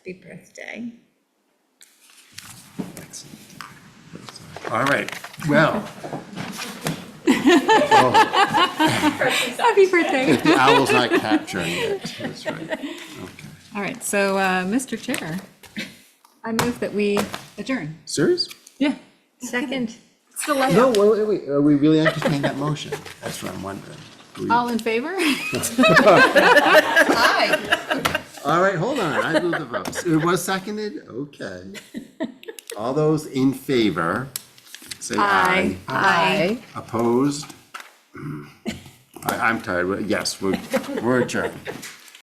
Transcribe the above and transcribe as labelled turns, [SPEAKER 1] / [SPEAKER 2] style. [SPEAKER 1] Happy birthday.
[SPEAKER 2] All right, well,
[SPEAKER 3] Happy birthday.
[SPEAKER 2] the owl's not capturing it, that's right. Okay.
[SPEAKER 3] All right, so, uh, Mr. Chair, I move that we adjourn.
[SPEAKER 2] Serious?
[SPEAKER 3] Yeah.
[SPEAKER 1] Second.
[SPEAKER 3] Still
[SPEAKER 2] No,
[SPEAKER 3] late.
[SPEAKER 2] wait, wait, wait, are we really entertaining that motion? That's what I'm wondering. Are we-
[SPEAKER 3] All in favor?
[SPEAKER 2] All right, hold on, I move the votes. It was seconded, okay. All those in favor, say aye. Mm.
[SPEAKER 3] Aye.
[SPEAKER 2] Opposed? I, I'm tired, Well, yes, we're, we're adjourned.